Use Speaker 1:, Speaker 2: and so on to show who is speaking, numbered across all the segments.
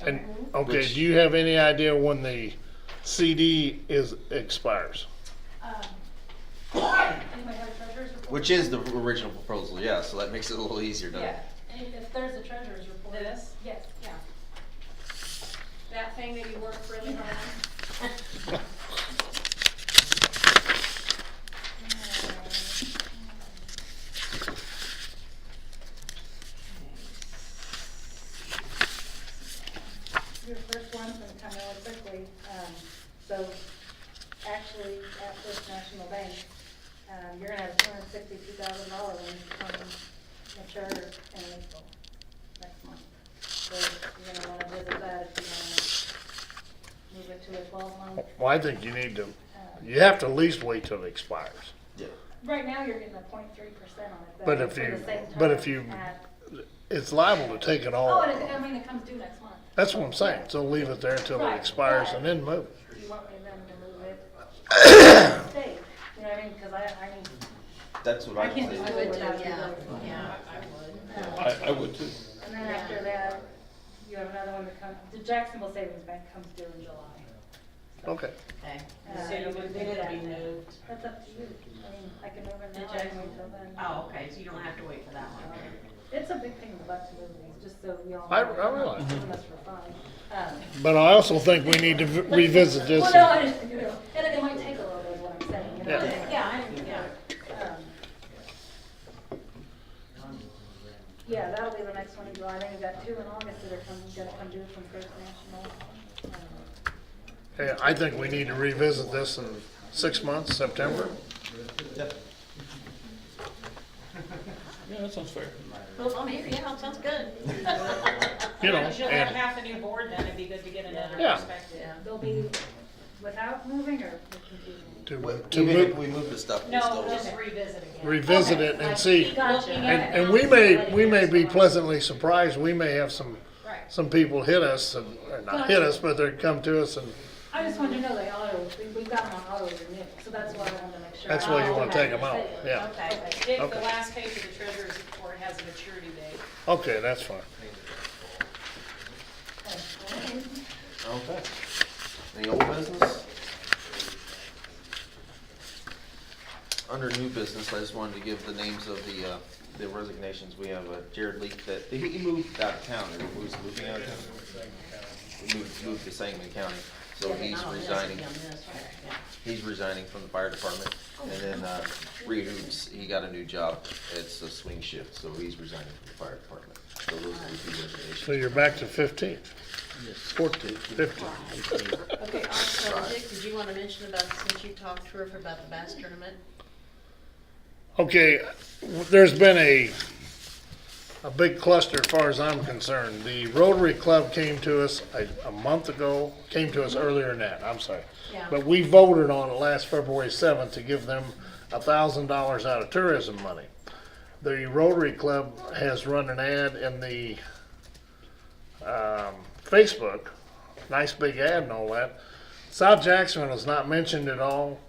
Speaker 1: And, okay,
Speaker 2: Which-
Speaker 1: do you have any idea when the CD is, expires?
Speaker 3: Anybody have a treasurer's report?
Speaker 2: Which is the original proposal, yeah, so that makes it a little easier, doesn't it?
Speaker 3: Yeah, and if there's a treasurer's report.
Speaker 4: This?
Speaker 3: Yes.
Speaker 4: Yeah. That thing that you worked really hard on.
Speaker 5: Your first one's gonna come really quickly, um, so actually, at First National Bank, um, you're gonna have two hundred sixty-two thousand dollars when it's coming mature in April, next month. So you're gonna wanna visit that if you wanna move it to a um, twelve-month.
Speaker 1: Well, I think you need to, you have to at least wait till it expires.
Speaker 2: Yeah.
Speaker 5: Right now, you're getting a point three percent on it. though,
Speaker 1: But if
Speaker 5: for the
Speaker 1: you-
Speaker 5: same
Speaker 1: but
Speaker 5: time
Speaker 1: if you-
Speaker 5: at-
Speaker 1: It's liable to take it
Speaker 3: Oh,
Speaker 1: all.
Speaker 3: and it, I mean, it comes due next month.
Speaker 1: That's what I'm saying, so leave it there until it
Speaker 3: Right,
Speaker 1: expires
Speaker 3: right.
Speaker 1: and then move.
Speaker 5: You want me then to move it? Stay, you know what I mean, cause I, I mean,
Speaker 2: That's what I
Speaker 5: I can't
Speaker 2: would
Speaker 5: do
Speaker 2: say.
Speaker 5: it without you.
Speaker 4: Yeah,
Speaker 5: though.
Speaker 4: yeah.
Speaker 6: I, I would too.
Speaker 5: And then after that, you have another one that comes, the Jacksonville Savings Bank comes due in July.
Speaker 1: Okay.
Speaker 4: Okay.
Speaker 5: Uh,
Speaker 4: So you
Speaker 5: we
Speaker 4: would
Speaker 5: did
Speaker 4: think it'll
Speaker 5: that.
Speaker 4: be moved?
Speaker 5: That's up to you. I mean, I can move it
Speaker 4: The
Speaker 5: now, I can
Speaker 4: Jacksonville-
Speaker 5: wait till then.
Speaker 4: Oh, okay, so you don't have to wait for that one.
Speaker 5: It's a big thing about to move these, just so we all.
Speaker 1: I-
Speaker 5: know.
Speaker 1: I realize.
Speaker 5: Some of us were fine. Um,
Speaker 1: But I also think we need to v- revisit this.
Speaker 5: Well, no, I just, you know, and it might take a little bit, is what I'm saying, you know?
Speaker 1: Yeah.
Speaker 4: Yeah, I, yeah.
Speaker 5: Um, Yeah, that'll be the next one in July, then you've got two in August that are coming, gonna come due from First National. Um,
Speaker 1: Yeah, I think we need to revisit this in six months, September.
Speaker 6: Yeah, that sounds fair.
Speaker 4: Well, I'm here, yeah, it sounds good.
Speaker 1: You know,
Speaker 4: You'll have
Speaker 1: and-
Speaker 4: half the new board then, it'd be good to get another
Speaker 1: Yeah.
Speaker 4: perspective.
Speaker 5: They'll be without moving or with confusing?
Speaker 1: To,
Speaker 2: Wh-
Speaker 1: to
Speaker 2: Even if
Speaker 1: move,
Speaker 2: we move the stuff, we
Speaker 4: No,
Speaker 2: still.
Speaker 4: just revisit again.
Speaker 1: revisit it and see.
Speaker 5: Gotcha.
Speaker 1: And, and we may, we may be pleasantly surprised, we may have some,
Speaker 4: Right.
Speaker 1: some people hit us, and, or not hit us, but they come to us and
Speaker 5: I just wanted to know they auto, we- we've got them on auto renew, so that's why I wanted to make sure.
Speaker 1: that's why you wanna take them out, yeah.
Speaker 4: Okay, Dick, the
Speaker 1: Okay.
Speaker 4: last page of the treasurer's report has a maturity date.
Speaker 1: Okay, that's fine.
Speaker 2: Okay. Any old business? Under new business, I just wanted to give the names of the, uh, the resignations. We have uh, Jared Leak that, he moved out of town, or was moving out of town. He Moved, moved to Sangamon County, so
Speaker 4: Yeah, but
Speaker 2: he's
Speaker 4: not on this, it'd
Speaker 2: resigning.
Speaker 4: be on this, right, yeah.
Speaker 2: He's resigning from the fire department, and then, uh, Reed Hoops, he got a new job, it's a swing shift, so he's resigning from the fire department. So those are the two
Speaker 1: So
Speaker 2: resignations.
Speaker 1: you're back to fifteen. Fourteen. Fifteen.
Speaker 7: Okay, also, Dick, did you want to mention about, since you talked to her about the bass tournament?
Speaker 1: Okay, w- there's been a, a big cluster as far as I'm concerned. The Rotary Club came to us a, a month ago, came to us earlier than that, I'm sorry.
Speaker 7: Yeah.
Speaker 1: But we voted on it last February seventh to give them a thousand dollars out of tourism money. The Rotary Club has run an ad in the, um, Facebook, nice big ad and all that. South Jackson was not mentioned at all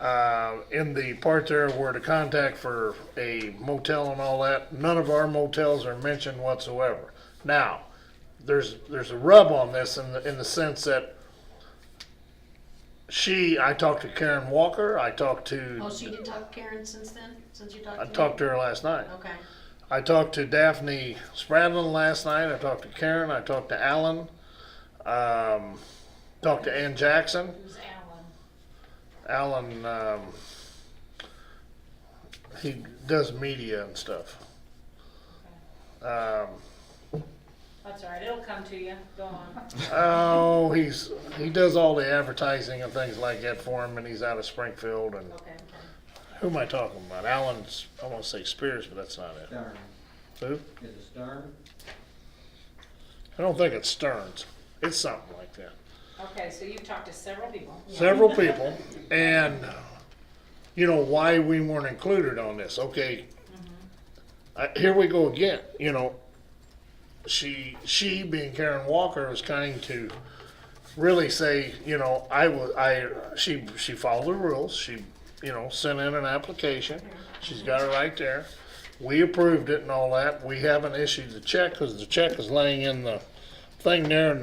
Speaker 1: uh, in the part there where to contact for a motel and all that, none of our motels are mentioned whatsoever. Now, there's there's a rub on this in the, in the sense that she, I talked to Karen Walker, I talked to,
Speaker 7: Oh, so you didn't talk to Karen since then, since you talked to
Speaker 1: I
Speaker 7: me?
Speaker 1: talked to her last night.
Speaker 7: Okay,
Speaker 1: I talked to Daphne Spradlin last night. I talked to Karen. I talked to Alan. Um, talked to Ann Jackson.
Speaker 4: Who's Alan?
Speaker 1: Alan, um, he does media and stuff. Um,
Speaker 4: That's all right, it'll come to you, go on.
Speaker 1: oh, he's he does all the advertising and things like that for him, and he's out of Springfield. And
Speaker 4: Okay.
Speaker 1: who am I talking about? Alan's I want to say Spears, but that's not it.
Speaker 8: Stern,
Speaker 1: Who?
Speaker 8: is it Stern?
Speaker 1: I don't think it's Stearns. It's something like that.
Speaker 4: Okay, so you've talked to several people.
Speaker 1: several people, and you know why we weren't included on this. Okay, uh, here we go again. You know, she she being Karen Walker was kind to really say, you know, I was I she she followed the rules. She you know sent in an application. She's got it right there. We approved it and all that. We haven't issued the check because the check is laying in the thing there and